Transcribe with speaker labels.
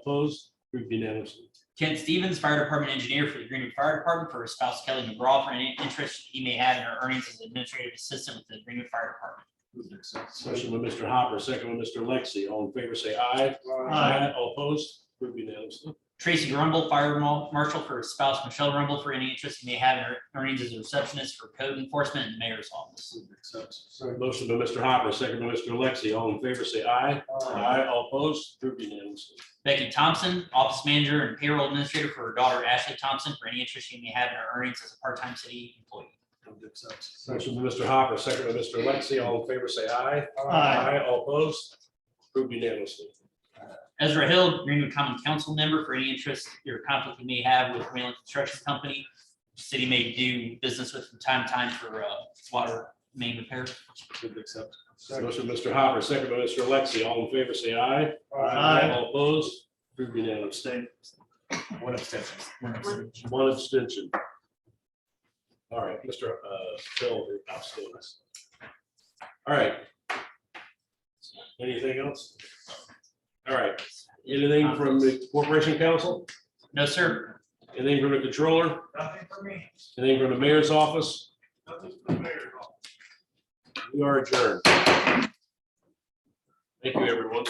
Speaker 1: Opposed? Approved unanimously.
Speaker 2: Kent Stevens, Fire Department Engineer for the Greenwood Fire Department, for his spouse Kelly McGraw, for any interest he may have in her earnings as administrative assistant with the Greenwood Fire Department.
Speaker 1: Move to accept. Motion by Mr. Hopper, second by Mr. Lexi. All in favor, say aye.
Speaker 2: Aye.
Speaker 1: All opposed? Approved unanimously.
Speaker 2: Tracy Rumble, Fire Mar- Marshal, for his spouse Michelle Rumble, for any interest he may have in her earnings as a receptionist for code enforcement in the mayor's office.
Speaker 1: Move to accept. Motion by Mr. Hopper, second by Mr. Lexi. All in favor, say aye. All opposed? Approved unanimously.
Speaker 2: Becky Thompson, Office Manager and Payroll Administrator, for her daughter Ashley Thompson, for any interest she may have in her earnings as a part-time city employee.
Speaker 1: Motion by Mr. Hopper, second by Mr. Lexi. All in favor, say aye. All opposed? Approved unanimously.
Speaker 2: Ezra Hill, Greenwood Common Council member for any interest or conflict you may have with Wayland Construction Company. City may do business with from time to time for uh, water main repair.
Speaker 1: Move to accept. Motion by Mr. Hopper, second by Mr. Lexi. All in favor, say aye. All opposed? Approved unanimously.
Speaker 3: One abstention.
Speaker 1: One abstention. All right, Mr. uh, Phil, abstain. All right. Anything else? All right, anything from the Corporation Council?
Speaker 2: No, sir.
Speaker 1: Anything from the Controller?
Speaker 3: Nothing for me.
Speaker 1: Anything from the Mayor's Office?
Speaker 3: Nothing for the mayor.
Speaker 1: We are adjourned. Thank you, everyone.